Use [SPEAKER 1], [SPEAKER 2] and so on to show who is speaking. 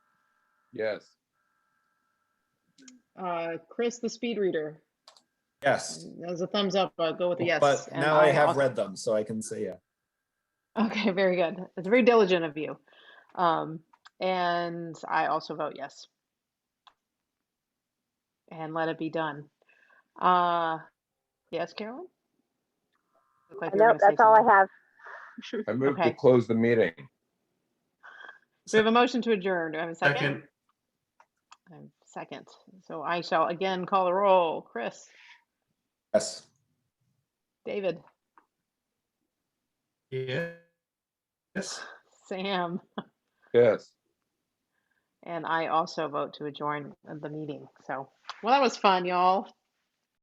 [SPEAKER 1] Yes.
[SPEAKER 2] Uh, Chris, the speed reader,
[SPEAKER 3] Yes.
[SPEAKER 2] as a thumbs up, uh, go with a yes.
[SPEAKER 3] But
[SPEAKER 2] And
[SPEAKER 3] now I have
[SPEAKER 2] also-
[SPEAKER 3] read them, so I can say, yeah.
[SPEAKER 2] Okay, very good. It's very diligent of you. Um, and I also vote yes. And let it be done. Uh, yes, Carolyn? Looked like you were gonna
[SPEAKER 4] Nope,
[SPEAKER 2] say
[SPEAKER 4] that's all I
[SPEAKER 2] something.
[SPEAKER 4] have.
[SPEAKER 1] I move to
[SPEAKER 2] Okay.
[SPEAKER 1] close the meeting.
[SPEAKER 2] We have a motion to adjourn. Do I have a second?
[SPEAKER 5] Second,
[SPEAKER 2] Um, Second. So I shall again call the roll. Chris,
[SPEAKER 3] Yes.
[SPEAKER 2] David,
[SPEAKER 5] yeah. Yes.
[SPEAKER 2] Sam,
[SPEAKER 1] Yes.
[SPEAKER 2] and I also vote to adjourn the meeting. So, well, that was fun, y'all.